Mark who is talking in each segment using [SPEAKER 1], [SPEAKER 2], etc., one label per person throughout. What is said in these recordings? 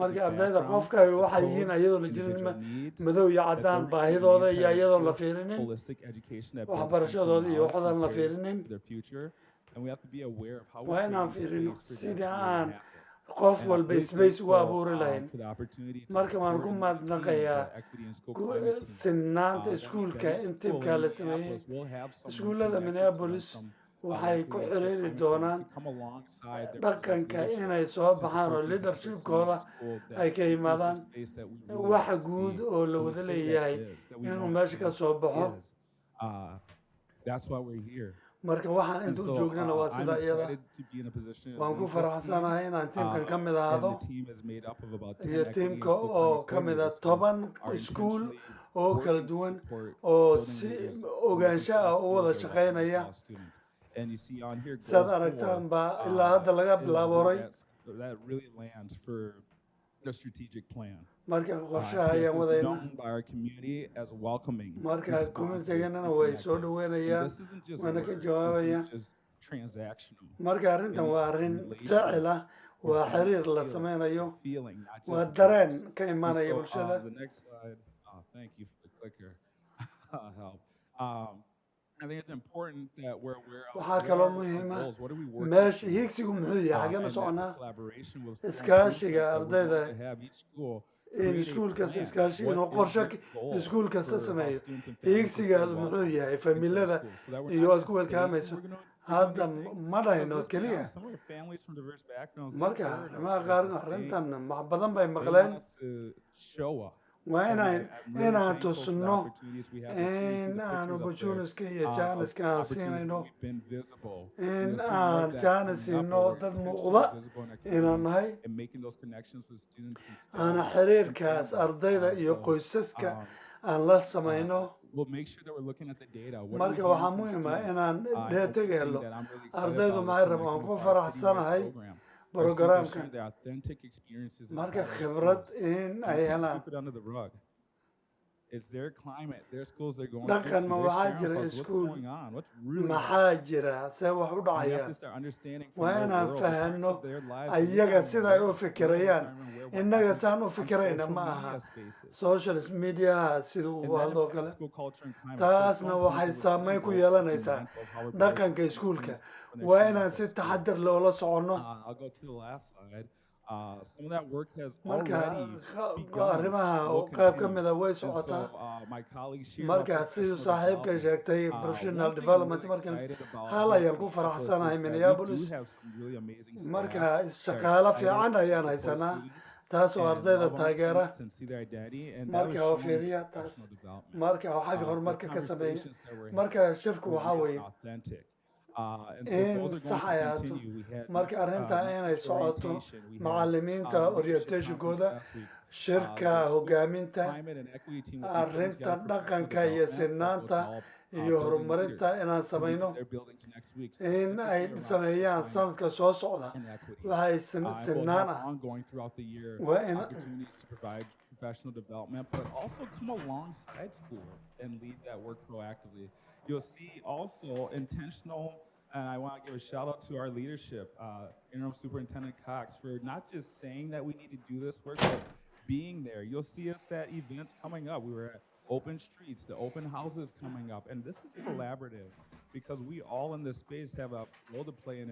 [SPEAKER 1] marka ardayda qofkani waxay yihiin ayadoo la jirin madow iyo caddaan baahidooda iyo ayadoon la fiirinin waxbarashadooda iyo waxdan la fiirinin waa inaan fiirino sidii aan qof walba space ugu abuuri lahayn marka waan ku mahadnaqayaa eh, sinnaanta iskuulka in tibka la sameeyey iskuullada minneapolis waxay ku xiriiri doonaan dhaqanka inay soo baxaan oo lidershipkooda ay ka yimaadaan wax guud oo la wada leeyahay inuu meesha ka soo baxo marka waxaan intuu joognana waa sida iyada waan ku faraxsanahay inaan tiimkan ka mid ahaado iyo tiimka oo ka mid ah toban iskuul oo kala duwan oo si ogaansho ah u wada shaqaynaya saad aragtaan baa ilaa hadda laga bilaabo horay marka qorshaha ayaan wadayna marka communitygeenana way soo dhaweynayaan waana ka jawaabayaan marka arrintan waa arrin ficil ah waa xiriir la sameynayo waa dareen ka imaanaya bulshada uh, Um, waxaa kaloo muhiima meesha hiigsigu muxuu yahay xaggana soconaa iskaashiga ardayda in iskuul kasta iskaashi inuu qorsho iskuul kasta sameeyo hiigsigaad muxuu yahay familada iyo aad ku welkaamayso hadda ma dhahayno keliya marka arrimaha qaarna arrintan wax badan bay maqleen waa inaan inaan tusno in aan opportuniska iyo jaaniska aan siinayno in aan jaanis siino dad muuqda inaan nahay aana xiriirkaas ardayda iyo qoysaska aan la samayno marka waxaa muhiim ah inaan dheetag helo ardaydu maxay rabaan ku faraxsanahay programka marka khibrad in ay helaan dhaqanma waxaa jira iskuul maxaa jira see wax u dhacayaan waa inaan fahanno ayaga sida ay u fikirayaan innaga saan u fikirayna ma aha socialist mediaha siduu ugu hadloo kale taasna waxay saameyn ku yeelanaysaa dhaqanka iskuulka waa inaan si taxadir leh oola soconno Uh, marka arrimaha qayb ka mida way socotaa marka siduu saaxiibka sheegtay professional development markan hal ayaan ku faraxsanahay minneapolis uh, marka shaqaalo fiican ayaan haysanaa taas oo ardayda taageera marka oo fiiriya taas marka oo xagga horumarka ka sameeya marka shirku waxaa weeye uh, in sax ay ahaato marka arrintaa inay socoto macalimiinta orientationkooda shirka hogaaminta arrinta dhaqanka iyo sinaanta iyo horumarinta inaan samayno in ay sameeyaan sanadka soo socda waxay sinaan ah waa in professional development, but also come alongside schools and lead that work proactively. You'll see also intentional, and I want to give a shout out to our leadership, uh, Interim Superintendent Cox, for not just saying that we need to do this work, but being there. You'll see us at events coming up. We were at open streets, the open houses coming up, and this is collaborative because we all in this space have a role to play in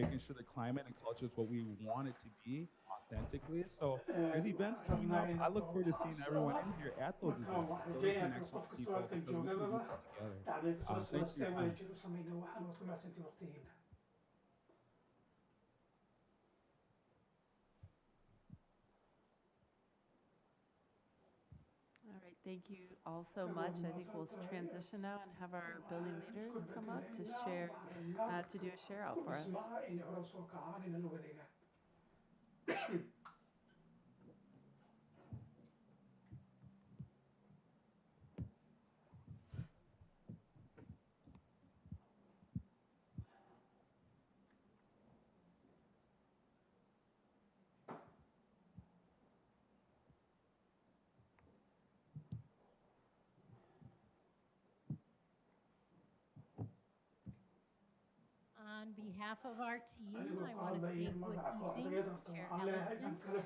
[SPEAKER 1] making sure the climate and culture is what we want it to be authentically. So there's events coming up. I look forward to seeing everyone in here at those events. Those connections to people because we can do this together. Uh, thanks for your time.
[SPEAKER 2] All right, Thank you all so much. I think we'll transition now and have our building leaders come up to share, uh, to do a share out for us.
[SPEAKER 3] On behalf of our team, I want to say good evening, Chair Ellison.